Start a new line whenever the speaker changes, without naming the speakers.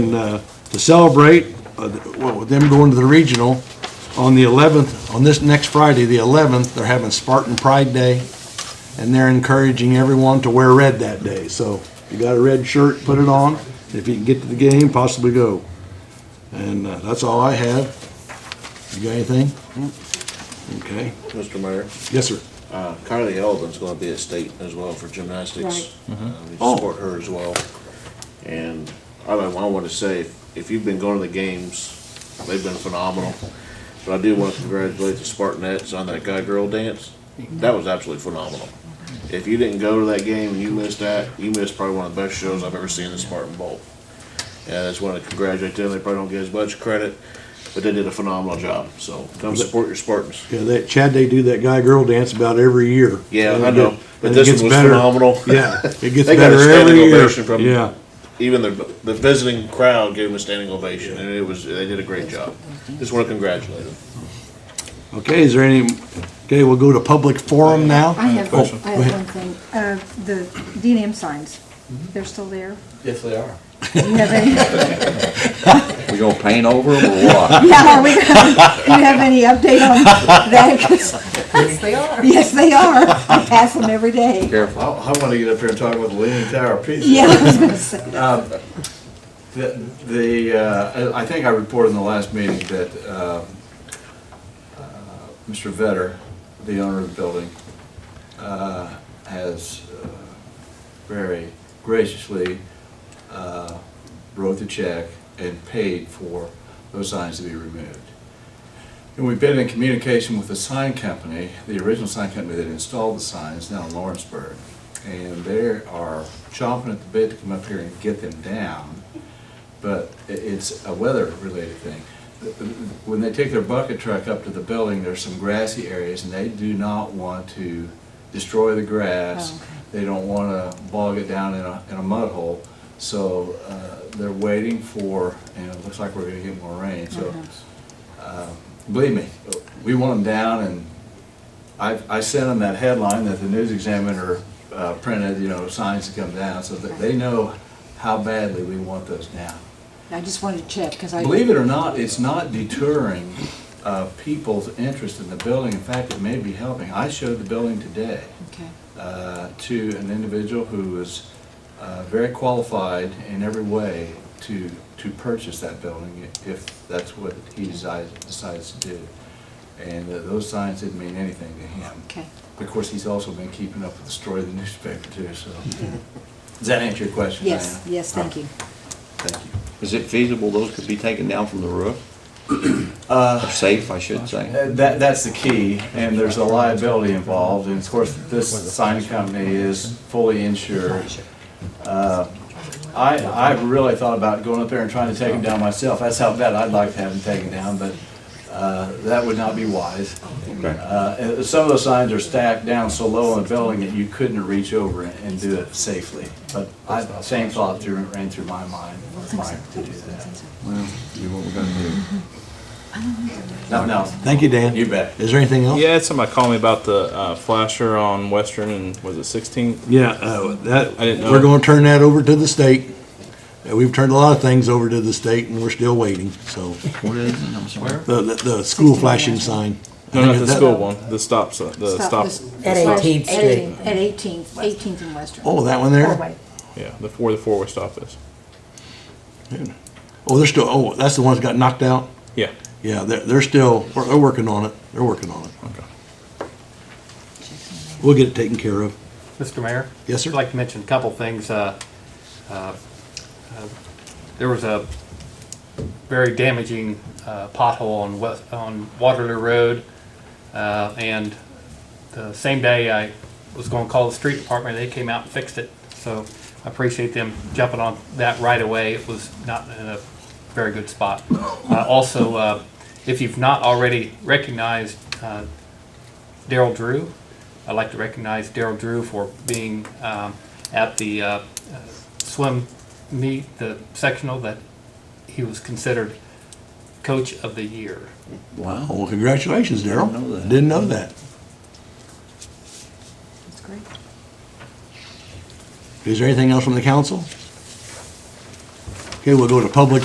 And, uh, to celebrate, uh, the- well, with them going to the regional on the 11th, on this next Friday, the 11th, they're having Spartan Pride Day, and they're encouraging everyone to wear red that day. So if you got a red shirt, put it on. If you can get to the game, possibly go. And uh, that's all I have. You got anything? Okay.
Mr. Mayor,
Yes, sir.
uh, Carly Eldon's going to be at state as well for gymnastics. Uh, We
Oh.
support her as well. And I want to say, if- if you've been going to the games, they've been phenomenal. But I do want to congratulate the Spartanettes on that guy-girl dance. That was absolutely phenomenal. If you didn't go to that game and you missed that, you missed probably one of the best shows I've ever seen in the Spartan Bowl. And I just want to congratulate them. They probably don't get as much credit, but they did a phenomenal job. So come support your Spartans.
Yeah, that, Chad, they do that guy-girl dance about every year.
Yeah,
And
I
it
know,
get-
but
and it
this
gets
one was
better.
phenomenal.
Yeah, it gets
They got a
better every
standing
year.
ovation from-
Yeah,
even the the visiting crowd gave him a standing ovation, and it was they did a great job. Just want to congratulate them.
okay, is there any, okay, we'll go to public forum now.
I have,
Oh,
I
go
have
ahead.
one thing, uh, the D and M signs, they're still there?
Yes, they are.
Do you have any,
We gonna paint over them or what?
yeah, are we, do you have any update on that? 'Cause-
Yes, they are.
Yes, they are, I pass them every day.
Careful.
I, I want to get up here and talk about the Leaning Tower of Pisa.
Yeah, I was gonna say,
The- The, uh, I I think I reported in the last meeting that um, uh, Mr. Vetter, the owner of the building, uh, has uh, very graciously uh, wrote the check and paid for those signs to be removed. And we've been in communication with the sign company, the original sign company that installed the signs down in Lawrenceburg. And they are chomping at the bit to come up here and get them down but i- it's a weather-related thing. When they take their bucket truck up to the building, there's some grassy areas, and they do not want to destroy the
Oh,
grass.
okay.
They don't want to bog it down in a, in a mud hole, so uh, they're waiting for, and it looks like we're going to get more rain, so. uh, Believe me, we want them down, and I, I sent them that headline that the News Examiner uh, printed, you know, signs to come down, so that they know how badly we want those down.
I just wanted to check, because I.
Believe it or not, it's not deterring uh, people's interest in the building. In fact, it may be helping. I showed the building today
Okay,
uh, to an individual who was uh, very qualified in every way to, to purchase that building if that's what he decides, decides to do. And uh, those signs didn't mean anything to him.
okay,
Of course, he's also been keeping up with the story of the newspaper too, so. Does that answer your question, Diana?
yes, yes, thank you.
Thank you.
Is it feasible those could be taken down from the roof? Or Safe, I should say.
Uh, That, that's the key, and there's a liability involved, and of course, this sign company is fully insured. Uh, I, I really thought about going up there and trying to take them down myself, that's how bad I'd like to have them taken down, but uh, that would not be wise. Uh, and Some of those signs are stacked down so low on the building that you couldn't reach over and- and do it safely, but I, same thought through- ran through my mind, Mike, to do that.
Well, do what we're gonna do.
Nothing else?
Thank you, Dan.
You bet.
Is there anything else?
Yeah, I had somebody call me about the uh, flasher on Western and was it 16th?
Yeah, uh, that,
I didn't know.
we're gonna turn that over to the state. Uh, We've turned a lot of things over to the state and we're still waiting, so.
What is it? I'm sorry.
The, the, the school flashing sign.
No, not the
That-
school one. The stop. si- The stop.
this-
At
this-
18th Street.
Eighteenth- At eighteenth, eighteenth and Western.
Oh, that one there?
Yeah, the four. The four-way stop is.
Oh, they're still, oh, that's the one that got knocked out?
Yeah.
Yeah, they're, they're still, we're- they're working on it. They're working on it.
Okay.
We'll get it taken care of.
Mr. Mayor?
Yes, sir.
I'd like to mention a couple things. Uh, uh, uh, There was a very damaging uh, pothole on West, on Waterloo Road. uh, And the same day, I was going to call the street department, they came out and fixed it. So I appreciate them jumping on that right away. It was not in a very good spot. Uh, Also, uh, if you've not already recognized uh, Daryl Drew. I'd like to recognize Daryl Drew for being um, at the uh, uh, swim meet, the sectional, that he was considered coach of the year.
Wow.
Well, congratulations, Daryl.
Didn't know that.
Didn't know that.
That's great.
Is there anything else from the council? Okay, we'll go to public